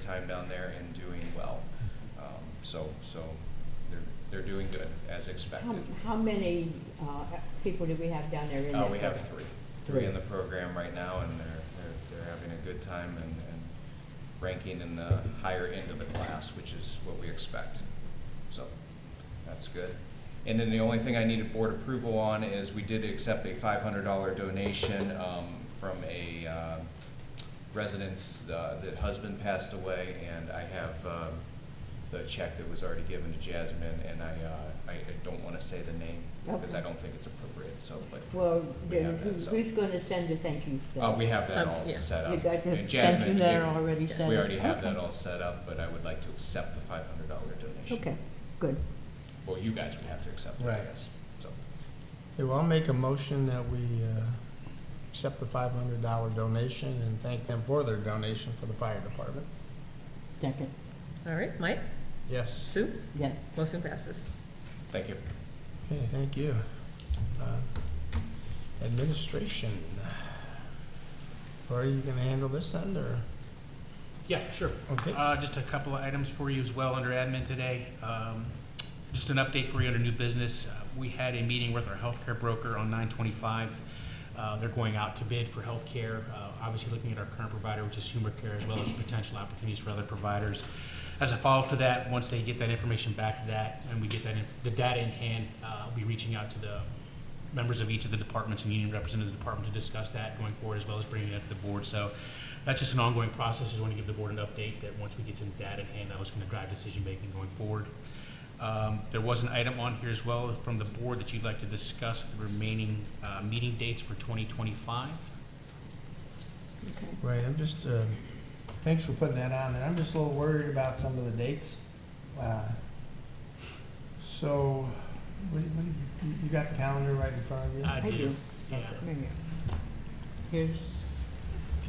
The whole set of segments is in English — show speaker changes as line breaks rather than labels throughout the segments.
time down there and doing well. Um, So, so they're, they're doing good, as
How,
expected.
how many, uh, people do we have down there in
Uh,
that
we have
program?
three, three in
Three.
the program right now, and they're, they're, they're having a good time and, and ranking in the higher end of the class, which is what we expect. So, that's good. And then the only thing I needed board approval on is we did accept a five hundred dollar donation, um, from a, uh, residence, uh, that husband passed away, and I have, um, the check that was already given to Jasmine, and I, uh, I I don't wanna say the name, because I
Okay.
don't think it's appropriate, so, but
Well,
We
then
have that,
who-
so-
who's gonna send a thank you?
uh, we have that
Um,
all
yeah.
set up.
You got the
And
thank you
Jasmine,
letter
if-
already
Yes.
sent?
We already have
Okay.
that all set up, but I would like to accept the five hundred dollar donation.
Okay, good.
Well, you guys would have to accept it, I
Right.
guess, so.
Yeah, well, I'll make a motion that we uh, accept the five hundred dollar donation and thank them for their donation for the fire department.
Second,
All right, Mike,
Yes,
Sue,
yes.
motion passes.
Thank you.
okay, thank you. Uh, Administration. Are you gonna handle this end, or,
Yeah, sure.
okay,
Uh, Just a couple of items for you as well under admin today. Um, Just an update for you under new business. Uh, We had a meeting with our healthcare broker on 925. Uh, They're going out to bid for healthcare, uh, obviously looking at our current provider, which is Humor Care, as well as potential opportunities for other providers. As a follow-up to that, once they get that information back to that, and we get that, in- the data in hand, uh, I'll be reaching out to the members of each of the departments and union representatives of the department to discuss that going forward, as well as bringing it up to the board. So that's just an ongoing process, just want to give the board an update that once we get some data in hand, that was going to drive decision-making going forward. Um, There was an item on here as well from the board that you'd like to discuss the remaining uh, meeting dates for 2025.
Okay.
right, I'm just, uh, thanks for putting that on there, I'm just a little worried about some of the dates. Uh, So, what, what, you, you got the calendar right in front of you?
I
I do.
do, yeah.
Right here. Here's,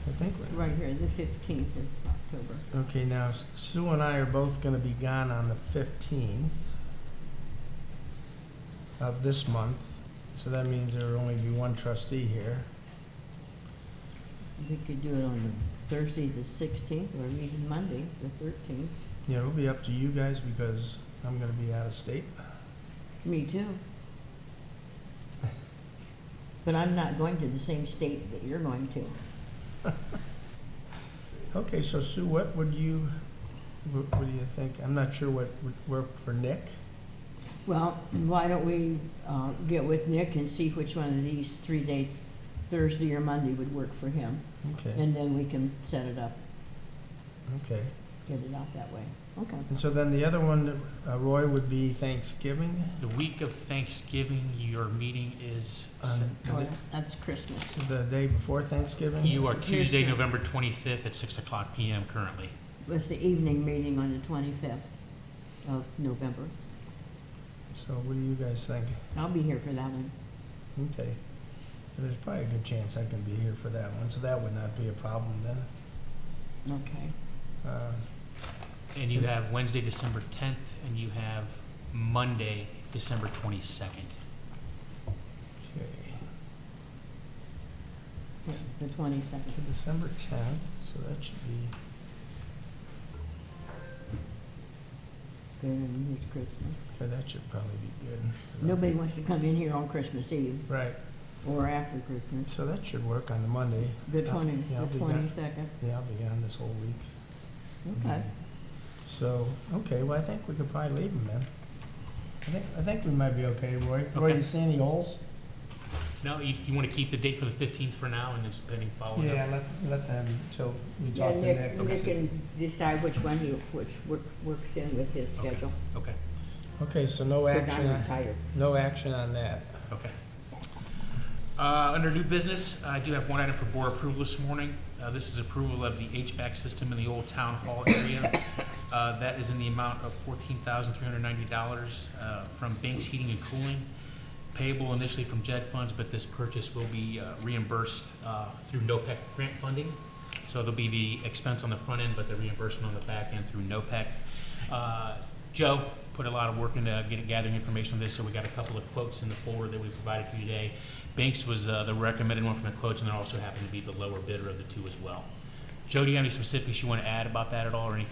I think we
right here, the fifteenth of October.
Okay, now S- Sue and I are both gonna be gone on the fifteenth of this month, so that means there will only be one trustee here.
We could do it on the Thursday, the sixteenth, or even Monday, the thirteenth.
Yeah, it'll be up to you guys because I'm gonna be out of state.
Me too. But I'm not going to the same state that you're going to.
Okay, so Sue, what would you, what, what do you think? I'm not sure what would work for Nick.
Well, why don't we uh, get with Nick and see which one of these three dates, Thursday or Monday, would work for him?
Okay,
And then we can set it up,
okay.
get it out that way. Okay.
And so then the other one, uh, Roy, would be Thanksgiving
The week of Thanksgiving, your meeting is,
on
Well, That's Christmas.
um, the, the day before Thanksgiving?
you are
Here's
Tuesday,
the-
November 25th at 6 o'clock PM currently.
It's the evening meeting on the twenty-fifth of November.
So what do you guys think?
I'll be here for that one.
Okay. There's probably a good chance I can be here for that one, so that would not be a problem then.
Okay.
Uh,
And you have Wednesday, December tenth, and you have Monday, December twenty-second.
Okay,
Yes, The twenty-second.
Okay, December tenth, so that should be,
Good, and here's Christmas.
okay, that should probably be good.
Nobody wants to come in here on Christmas Eve
Right,
or after Christmas.
so that should work on the Monday.
The
Yeah,
twenty,
yeah, I'll
the
be gone.
twenty-second.
Yeah, I'll be gone this whole week. Mm-hmm.
Okay.
So, okay, well, I think we could probably leave them then. I think, I think we might be okay, Roy. Roy,
Okay.
you see any holes?
No, you, you wanna keep the date for the fifteenth for now, and it's pending follow-up?
Oh, Yeah, let, let them, till we
Yeah,
talk to
Nick,
Nick.
Nick can decide which one he, which work- works in with his
Okay.
schedule.
Okay,
Okay, so no
Because
action,
I'm
on-
tired.
no action on that.
okay. Uh, under new business, I do have one item for board approval this morning. Uh, this is approval of the HVAC system in the old town hall area. Uh, that is in the amount of fourteen thousand three hundred ninety dollars, uh, from Banks Heating and Cooling, payable initially from JED funds, but this purchase will be uh, reimbursed, uh, through NOPEC grant funding. So there'll be the expense on the front end, but the reimbursement on the back end through NOPEC. E Uh, Joe put a lot of work into getting, gathering information on this, so we got a couple of quotes in the forward that we provided to you today. Banks was, uh, the recommended one from the quotes, and there also happened to be the lower bidder of the two as well. Joe, do you have any specifics you wanna add about that at all, or any